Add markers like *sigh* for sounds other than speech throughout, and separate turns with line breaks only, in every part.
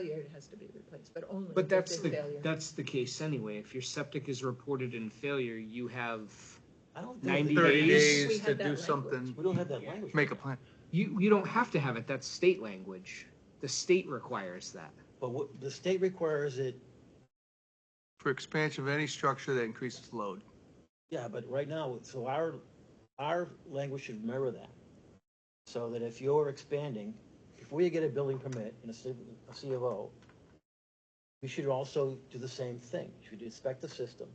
failure, it has to be replaced, but only.
But
if
that's
it's
the
failure.
that's the case anyway. If your septic is reported in failure, you have
I don't think.
90
that-
30
thirty
days.
We
days
had
to
that
do
language.
something,
We don't have that language.
make a plan.
you you don't have to have it. That's state language. The state requires that.
But what, the state requires it,
For expansion of any structure that increases load.
yeah, but right now, so our, our language should mirror that. So that if you're expanding, if we get a building permit in a C, a C of O, we should also do the same thing. You should inspect the system,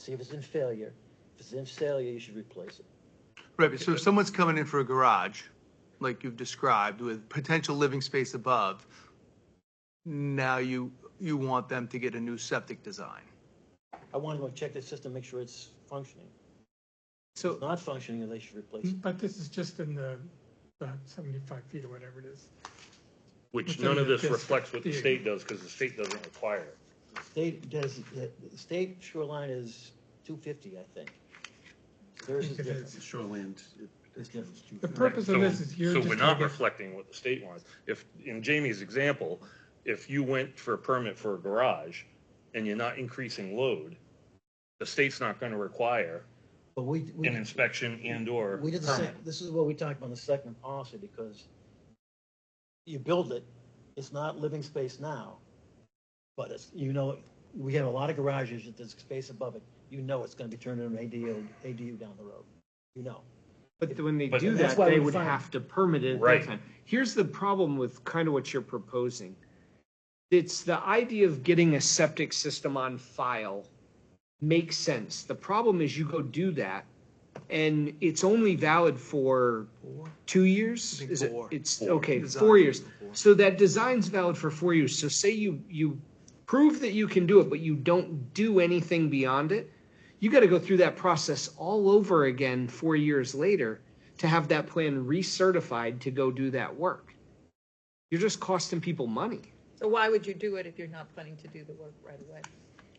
see if it's in failure. If it's in failure, you should replace it.
Right, but so if someone's coming in for a garage, like you've described, with potential living space above, now you, you want them to get a new septic design.
I want to go check the system, make sure it's functioning. If
So
it's not functioning, then they should replace it.
But this is just in the, the seventy-five feet or whatever it is.
Which
Within
none of
the
this reflects what the
district.
state does, because the state doesn't require it.
State does, the the state shoreline is two fifty, I think. Theirs is
It
different.
is.
Shoreland.
It's different.
The purpose of
So-
this is you're
So
just.
we're not
gonna get-
reflecting what the state wants. If, in Jamie's example, if you went for a permit for a garage and you're not increasing load, the state's not gonna require
But we, we,
an inspection and or
we did the same,
permit.
this is what we talked about in the second policy, because you build it, it's not living space now, but it's, you know, we have a lot of garages, there's space above it, you know it's gonna be turned into an ADU, ADU down the road, you know.
But when they
But
do
that's
that,
why
they
we
would
find-
have to permit it at
Right.
that time. Here's the problem with kind of what you're proposing. It's the idea of getting a septic system on file makes sense. The problem is you go do that and it's only valid for two years?
think
Is it,
four.
it's,
Four.
okay,
Design.
four years. So that design's valid for four years. So say you, you prove that you can do it, but you don't do anything beyond it. You got to go through that process all over again four years later to have that plan recertified to go do that work. You're just costing people money.
So why would you do it if you're not planning to do the work right away?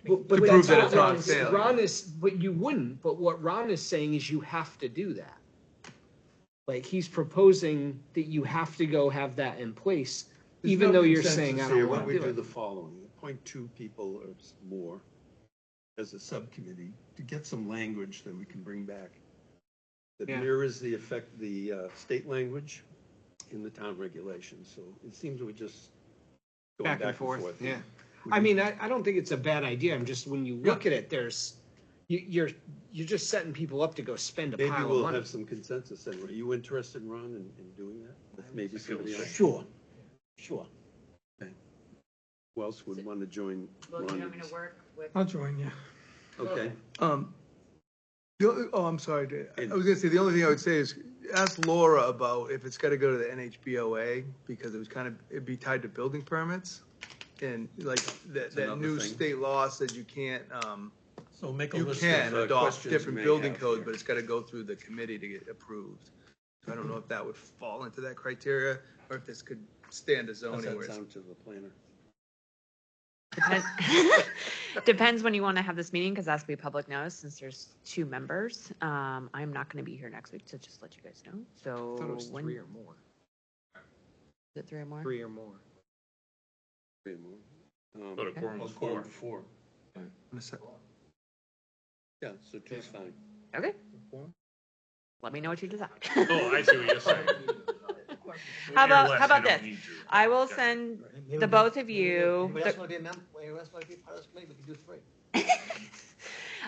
But,
To prove that
that's
it's not
Ron is-
failure.
Ron is, but you wouldn't. But what Ron is saying is you have to do that. Like he's proposing that you have to go have that in place, even though you're saying I don't want
Why
to
don't we
do
do the
it.
following, appoint two people or s- more as a subcommittee to get some language that we can bring back that
Yeah.
mirrors the effect, the uh, state language in the town regulations. So it seems we're just going back and forth.
Yeah. I mean, I, I don't think it's a bad idea. I'm just when you look at it, there's you, you're you're just setting people up to go spend a
Maybe
pile of
we'll
money.
have some consensus then. Are you interested, Ron, in, in doing that? With Maybe somebody else,
Sure, sure.
who else would want to join?
Well,
Ron
do you
in
want me
this?
to work with
I'll join you.
Okay,
Um, the only- oh, I'm sorry. Dan.
And-
I was gonna say, the only thing I would say is ask Laura about if it's gotta go to the NHBOA because it was kind of, it'd be tied to building permits. And like that, that
another
new
thing.
state law says you can't, um,
so make a
you
list
can
of uh,
adopt
questions.
different
we may
building
have
codes,
here.
but it's gotta go through the committee to get approved. So I don't know if that would fall into that criteria or if this could stand as
How's
zoning.
that
where it's-
sound to the planner?
Depends, *laughs* depends when you want to have this meeting, because that's gonna be public notice, since there's two members. Um, I'm not gonna be here next week, so just let you guys know,
I thought it
so
was
when,
three
is
or more.
it three or more?
Three or more.
Wait a moment. Um,
But a quorum
oh,
is four.
Four.
I'm sorry.
Yeah, so two's fine.
Okay. Let me know what
*laughs*
you decide. *laughs*
Oh, I see what you're saying. You're
How about-
less,
how about
you don't
this?
need to.
I will
Okay.
send,
Maybe
The
we-
both of
maybe we-
you-
Anybody else
the-
wanna be a member, anybody else wanna be part of this committee, we can do three.
I don't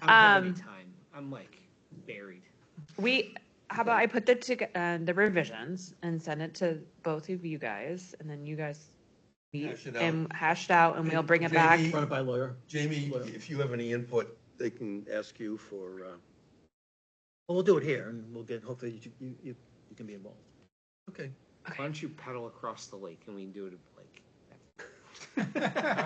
have any
Um,
time. I'm like buried.
we, how about I put the, tog- uh, the revisions and send it to both of you guys, and then you guys meet
Hash it out.
and hash it out, and we'll bring it back.
Jamie,
Run it by lawyer.
Jamie,
Well-
if you have any input, they can ask you for, uh,
Well, we'll do it here and we'll get, hopefully you, you, you you can be involved.
okay.
Why don't you paddle across the lake and we can do it at the lake?
*laughs*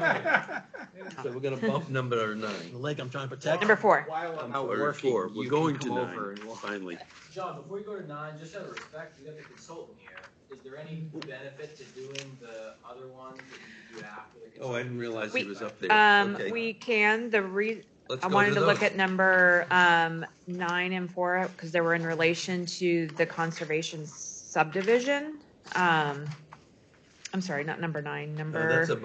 So we're gonna bump number nine.
The lake I'm trying to protect.
Number four.
I'm
How
sorry,
working,
four.
you
We're
can
going to
come over
nine,
and we'll-
finally.
John, before you go to nine, just out of respect, you got the consultant here. Is there any benefit to doing the other ones that you do after the consultant?
Oh, I didn't realize he
We-
was up there.
Um,
Okay,
we can, the re,
let's
I
go
wanted to look
those.
at number um, nine and four because they were in relation to the conservation subdivision. Um, I'm sorry, not number nine,
Uh, That's
number.
a